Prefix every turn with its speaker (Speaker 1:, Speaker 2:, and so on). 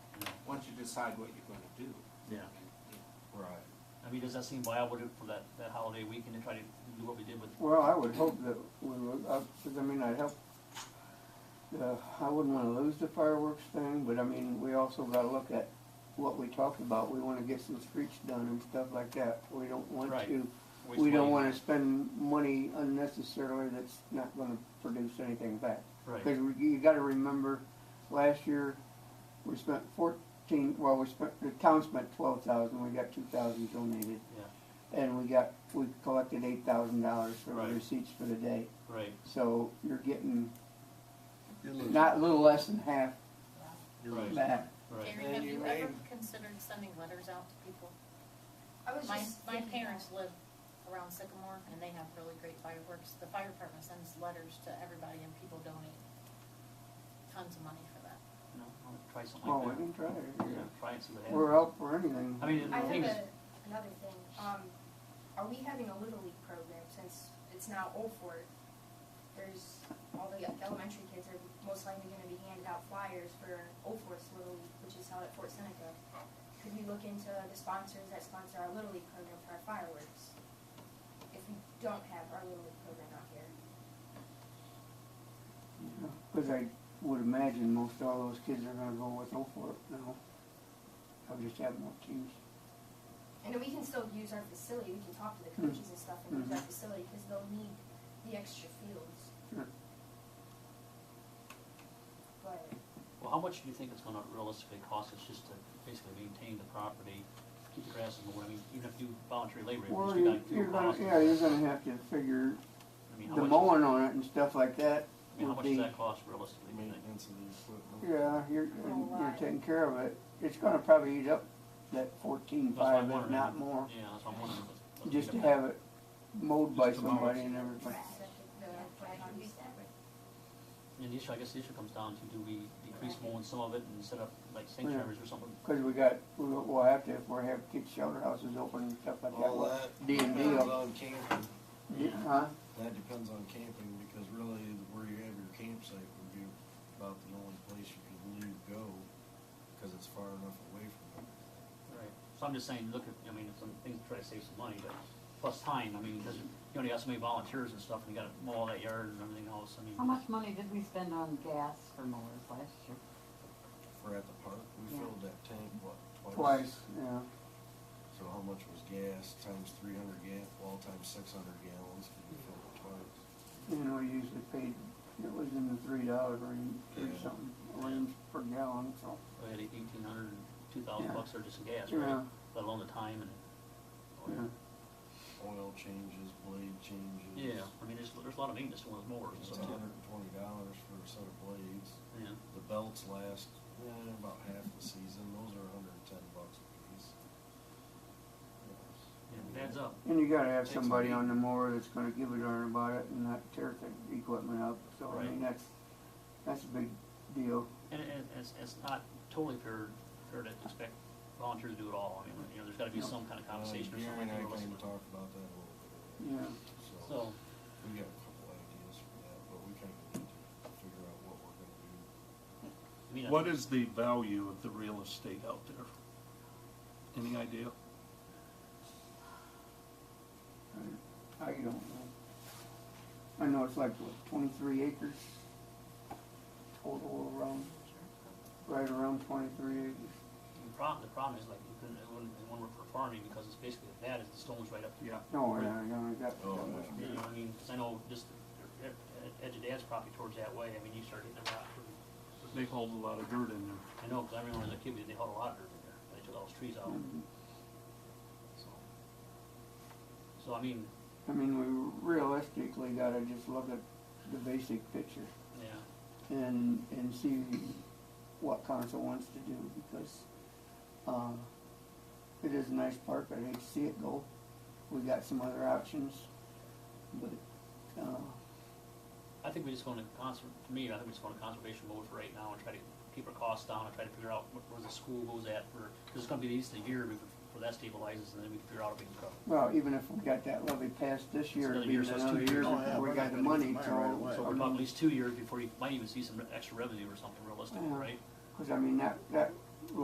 Speaker 1: decide what you're gonna do.
Speaker 2: Yeah.
Speaker 3: Right.
Speaker 2: I mean, does that seem viable to- for that, that holiday weekend to try to do what we did with?
Speaker 4: Well, I would hope that we would, uh, 'cause I mean, I'd help, uh, I wouldn't wanna lose the fireworks thing, but I mean, we also gotta look at what we talked about. We wanna get some streets done and stuff like that. We don't want
Speaker 2: Right.
Speaker 4: to,
Speaker 2: Waste
Speaker 4: we
Speaker 2: money.
Speaker 4: don't wanna spend money unnecessarily that's not gonna produce anything back.
Speaker 2: Right,
Speaker 4: Because you gotta remember, last year, we spent fourteen, well, we spent, the town spent twelve thousand, we got two thousand donated.
Speaker 2: Yeah.
Speaker 4: And we got, we collected eight thousand dollars for
Speaker 2: Right.
Speaker 4: the receipts for the day,
Speaker 2: right,
Speaker 4: so you're getting
Speaker 3: You're losing.
Speaker 4: not, a little less than half
Speaker 3: You're losing.
Speaker 4: back.
Speaker 2: right.
Speaker 5: Gary,
Speaker 1: And
Speaker 5: have
Speaker 1: you
Speaker 5: you ever
Speaker 1: made-
Speaker 5: considered sending letters out to people?
Speaker 6: I was
Speaker 5: My,
Speaker 6: just
Speaker 5: my
Speaker 6: thinking
Speaker 5: parents
Speaker 6: that.
Speaker 5: live around Sycamore and they have really great fireworks. The fire department sends letters to everybody and people donate tons of money for that.
Speaker 2: No, I'll Try something
Speaker 4: Oh, we
Speaker 2: like that.
Speaker 4: can try
Speaker 2: Yeah,
Speaker 4: it.
Speaker 2: try and see what happens.
Speaker 4: We're out for anything.
Speaker 2: I mean,
Speaker 6: I
Speaker 2: the thing
Speaker 6: have
Speaker 2: is,
Speaker 6: a, another thing, um, are we having a Little League program since it's now Old Fort? There's, all the elementary kids are most likely gonna be handed out flyers for Old Fort's Little League, which is held at Fort Seneca. Could we look into the sponsors that sponsor our Little League program for our fireworks? If we don't have our Little League program out here.
Speaker 4: Cause I would imagine most all those kids are gonna go with Oakport now. I'll just have more teams.
Speaker 6: And then we can still use our facility, we can talk to the coaches and stuff and use our facility, cause they'll need the extra fields.
Speaker 4: Sure.
Speaker 6: But,
Speaker 2: well, how much do you think it's gonna realistically cost us just to basically maintain the property, keep the grass and the, I mean, even if you do voluntary labor, at least
Speaker 4: Well,
Speaker 2: we
Speaker 4: you-
Speaker 2: got
Speaker 4: you're
Speaker 2: fuel
Speaker 4: gonna,
Speaker 2: costs.
Speaker 4: yeah, you're gonna have to figure
Speaker 2: I mean, how
Speaker 4: the
Speaker 2: much-
Speaker 4: mowing on it and stuff like that
Speaker 2: I mean, how
Speaker 4: would
Speaker 2: much does
Speaker 4: be,
Speaker 2: that cost realistically, do you think?
Speaker 3: Maintenance of the equipment.
Speaker 4: yeah, you're,
Speaker 6: whole
Speaker 4: you're
Speaker 6: lot.
Speaker 4: taking care of it. It's gonna probably eat up that fourteen
Speaker 2: That's what I'm
Speaker 4: five, if
Speaker 2: wondering.
Speaker 4: not more,
Speaker 2: Yeah, that's what I'm wondering. but- but-
Speaker 4: just to have it mowed by
Speaker 3: Just to mow it.
Speaker 4: somebody and everything.
Speaker 6: the, the,
Speaker 2: And the issue, I guess the issue comes down to, do we decrease mowing some of it and set up like
Speaker 4: Yeah.
Speaker 2: sanctuaries or something?
Speaker 4: Cause we got, we'll, we'll have to, if we have kids shelter houses open and stuff like that,
Speaker 3: All
Speaker 4: what,
Speaker 3: that
Speaker 4: D and D,
Speaker 3: depends on camping.
Speaker 2: Yeah.
Speaker 4: huh?
Speaker 3: That depends on camping because really where you have your campsite would be about the only place you could leave go because it's far enough away from everything.
Speaker 2: Right, so I'm just saying, look at, I mean, it's some things to try to save some money, but plus time, I mean, because you only got so many volunteers and stuff, and you gotta mow all that yard and everything else, I mean.
Speaker 7: How much money did we spend on gas for mowers last year?
Speaker 3: We're at the park, we
Speaker 7: Yeah.
Speaker 3: filled that tank, what, twice?
Speaker 4: Twice, yeah.
Speaker 3: So how much was gas times three hundred gal, well, times six hundred gallons, 'cause we filled it twice.
Speaker 4: You know, we usually paid, it was in the three dollar range, or
Speaker 3: Yeah.
Speaker 4: something, range per gallon, so.
Speaker 2: We had eighteen hundred, two thousand
Speaker 4: Yeah.
Speaker 2: bucks or just in gas,
Speaker 4: Yeah.
Speaker 2: right? Let alone the time and,
Speaker 4: yeah.
Speaker 3: Oil changes, blade changes.
Speaker 2: yeah, I mean, there's, there's a lot of maintenance to one of those mowers and
Speaker 3: It's
Speaker 2: stuff, too.
Speaker 3: a hundred and twenty dollars for a set of blades.
Speaker 2: yeah,
Speaker 3: The belts last, eh, about half the season, those are hundred and ten bucks a piece.
Speaker 2: yeah, it adds up.
Speaker 4: And you gotta have
Speaker 2: Takes a
Speaker 4: somebody
Speaker 2: beat.
Speaker 4: on the mower that's gonna give a darn about it and not tear the equipment up, so I
Speaker 2: Right.
Speaker 4: mean, that's, that's a big deal.
Speaker 2: And, and it's, it's not totally fair, fair to expect volunteers to do it all, I mean, you know, there's gotta be
Speaker 4: No.
Speaker 2: some kind of
Speaker 3: Uh,
Speaker 2: compensation or
Speaker 3: Gary
Speaker 2: something.
Speaker 3: and I
Speaker 2: for
Speaker 3: came
Speaker 2: listening.
Speaker 3: to talk about that a little bit.
Speaker 4: Yeah,
Speaker 3: So,
Speaker 2: So,
Speaker 3: we got a couple ideas for that, but we kinda need to figure out what we're gonna do.
Speaker 2: I mean, I
Speaker 8: What
Speaker 2: think-
Speaker 8: is the value of the real estate out there? Any idea?
Speaker 4: I don't know. I know it's like, what, twenty-three acres total around, right around twenty-three acres.
Speaker 2: the problem, the problem is like, you couldn't, it wouldn't, it wouldn't work for farming, because it's basically as bad as the stones right up to
Speaker 8: Yeah.
Speaker 4: No, I don't, know, that,
Speaker 3: Oh,
Speaker 4: that much.
Speaker 2: You know, what I mean, 'cause I know just the- the edge of dad's property towards that way, I mean, you start hitting the rock.
Speaker 8: They hold a lot of dirt in there.
Speaker 2: I know, 'cause I remember as a kid, they hauled a lot of dirt in there, they took all those trees out, so. So, I mean,
Speaker 4: I mean, we realistically gotta just look at the basic picture
Speaker 2: yeah,
Speaker 4: and, and see what council wants to do, because, um, it is a nice park, I'd hate to see it go. We got some other options, but, uh,
Speaker 2: I think we just go into conser, to me, I think we just go into conservation mode for right now and try to keep our costs down and try to figure out what, where the school goes at for, cause it's gonna be at least a year before that stabilizes, and then we can figure out if we can go.
Speaker 4: well, even if we got that levy passed this year, it'll
Speaker 2: Another
Speaker 4: be
Speaker 2: year, so it's two
Speaker 4: another year
Speaker 2: years.
Speaker 3: Oh, yeah,
Speaker 4: before we
Speaker 3: we're
Speaker 4: got
Speaker 3: not
Speaker 4: the
Speaker 3: gonna get
Speaker 4: money,
Speaker 3: the money right
Speaker 4: so.
Speaker 3: away.
Speaker 2: So we're talking at least two years before you might even see some extra revenue or something realistic,
Speaker 4: Yeah.
Speaker 2: right?
Speaker 4: Cause I mean, that, that